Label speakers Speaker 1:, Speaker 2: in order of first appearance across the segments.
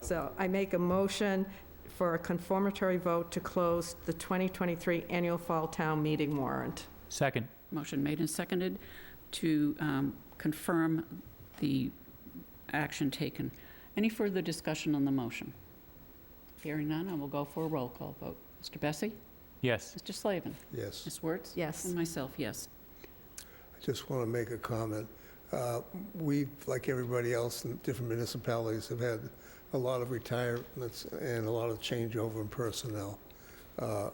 Speaker 1: So I make a motion for a confirmatory vote to close the 2023 annual fall town meeting warrant.
Speaker 2: Second.
Speaker 3: Motion made and seconded to um, confirm the action taken. Any further discussion on the motion? Hearing none, I will go for a roll call vote. Mr. Bessie?
Speaker 2: Yes.
Speaker 3: Mr. Slavin?
Speaker 4: Yes.
Speaker 3: Ms. Wertz?
Speaker 1: Yes.
Speaker 3: And myself, yes.
Speaker 4: I just want to make a comment. Uh, We, like everybody else in different municipalities, have had a lot of retirements and a lot of changeover in personnel. Uh,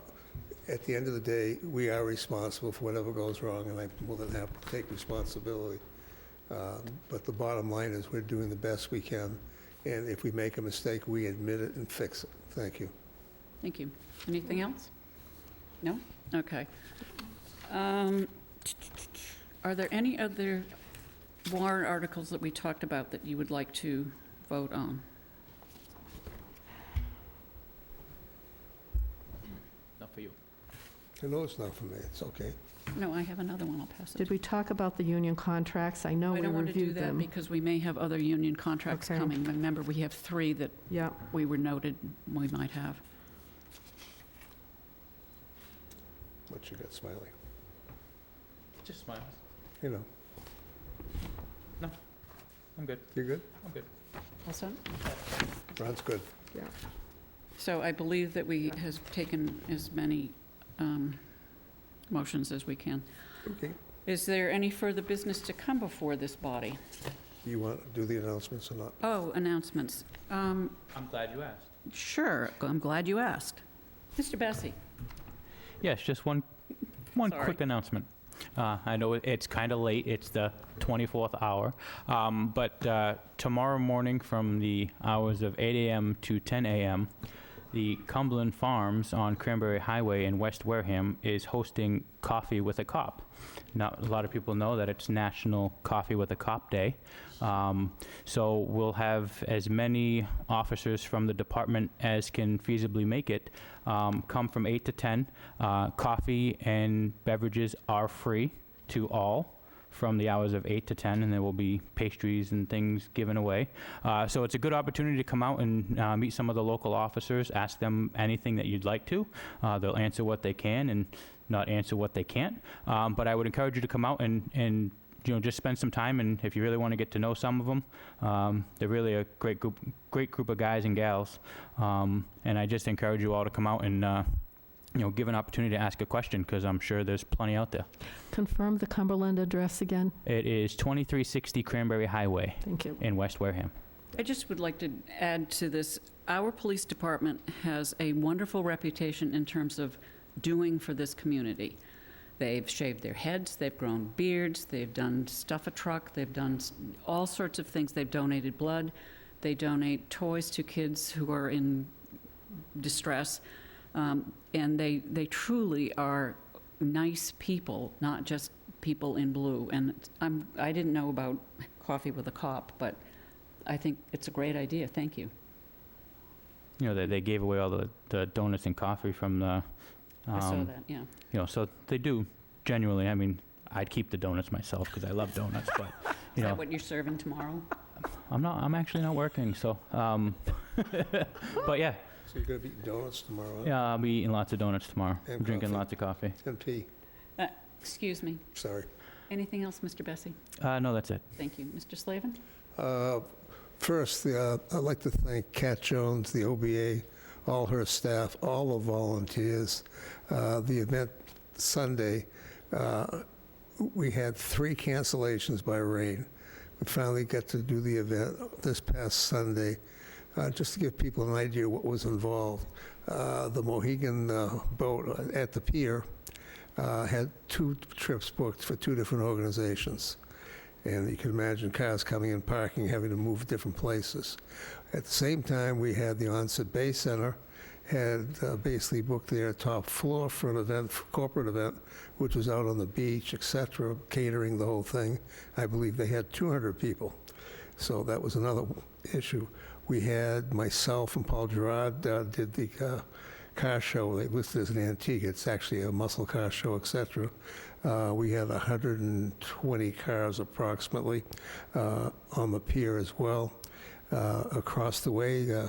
Speaker 4: At the end of the day, we are responsible for whatever goes wrong, and I'm more than happy to take responsibility. Um, But the bottom line is, we're doing the best we can, and if we make a mistake, we admit it and fix it. Thank you.
Speaker 3: Thank you. Anything else? No? Okay. Um, Are there any other warrant articles that we talked about that you would like to vote on?
Speaker 2: Not for you.
Speaker 4: I know it's not for me, it's okay.
Speaker 3: No, I have another one. I'll pass it.
Speaker 1: Did we talk about the union contracts? I know
Speaker 3: I
Speaker 1: we
Speaker 3: don't want to do
Speaker 1: reviewed
Speaker 3: that
Speaker 1: them.
Speaker 3: because we may have other union contracts
Speaker 1: Okay.
Speaker 3: coming. Remember, we have three that
Speaker 1: Yeah,
Speaker 3: we were noted we might have.
Speaker 4: What you got smiling,
Speaker 2: Just smiles.
Speaker 4: you know.
Speaker 2: I'm good.
Speaker 4: You good?
Speaker 3: Also?
Speaker 4: Ron's good.
Speaker 3: So I believe that we has taken as many um, motions as we can.
Speaker 4: Okay.
Speaker 3: Is there any further business to come before this body?
Speaker 4: Do you want to do the announcements or not?
Speaker 3: Oh, announcements. Um,
Speaker 2: I'm glad you asked.
Speaker 3: Sure, I'm glad you asked. Mr. Bessie?
Speaker 2: Yes, just one, one
Speaker 3: Sorry.
Speaker 2: quick announcement. Uh, I know it- it's kind of late, it's the 24th hour, um, but uh, tomorrow morning from the hours of 8 AM to 10 AM, the Cumberland Farms on Cranberry Highway in West Wareham is hosting Coffee with a Cop. Now, a lot of people know that it's National Coffee with a Cop Day, um, so we'll have as many officers from the department as can feasibly make it um, come from 8 to 10. Uh, Coffee and beverages are free to all from the hours of 8 to 10, and there will be pastries and things given away. Uh, So it's a good opportunity to come out and uh, meet some of the local officers, ask them anything that you'd like to. Uh, They'll answer what they can and not answer what they can't. Um, But I would encourage you to come out and, and, you know, just spend some time, and if you really want to get to know some of them, they're really a great group, great group of guys and gals. Um, and I just encourage you all to come out and, uh, you know, give an opportunity to ask a question because I'm sure there's plenty out there.
Speaker 1: confirm the Cumberland address again.
Speaker 2: It is 2360 Cranberry Highway
Speaker 1: Thank you.
Speaker 2: in West Wareham.
Speaker 3: I just would like to add to this, our police department has a wonderful reputation in terms of doing for this community. They've shaved their heads, they've grown beards, they've done stuff a truck, they've done s- all sorts of things, they've donated blood, they donate toys to kids who are in distress, Um, and they, they truly are nice people, not just people in blue. And I'm, I didn't know about Coffee with a Cop, but I think it's a great idea, thank you.
Speaker 2: You know, they, they gave away all the, the donuts and coffee from the,
Speaker 3: I saw
Speaker 2: um,
Speaker 3: that, yeah.
Speaker 2: you know, so they do genuinely. I mean, I'd keep the donuts myself because I love donuts, but, you
Speaker 3: Is that
Speaker 2: know,
Speaker 3: what you're serving tomorrow?
Speaker 2: I'm not, I'm actually not working, so, um, but yeah,
Speaker 4: So you're going to be eating donuts tomorrow, huh?
Speaker 2: yeah, I'll be eating lots of donuts tomorrow,
Speaker 4: And
Speaker 2: drinking
Speaker 4: coffee.
Speaker 2: lots of coffee.
Speaker 4: And pee,
Speaker 3: Excuse me,
Speaker 4: sorry.
Speaker 3: anything else, Mr. Bessie?
Speaker 2: Uh, no, that's it.
Speaker 3: Thank you. Mr. Slavin?
Speaker 4: Uh, First, uh, I'd like to thank Kat Jones, the OBA, all her staff, all the volunteers. Uh, The event Sunday, uh, we had three cancellations by rain. We finally got to do the event this past Sunday. Uh, Just to give people an idea what was involved, uh, the Mohegan uh, boat at the pier uh, had two trips booked for two different organizations. And you can imagine cars coming in, parking, having to move different places. At the same time, we had the Onset Bay Center had uh, basically booked their top floor for an event, for corporate event, which was out on the beach, et cetera, catering the whole thing. I believe they had 200 people. So that was another issue. We had myself and Paul Gerard uh, did the uh, car show. They listed as an antique. It's actually a muscle car show, et cetera. Uh, We had 120 cars approximately uh, on the pier as well. Uh, Across the way, uh,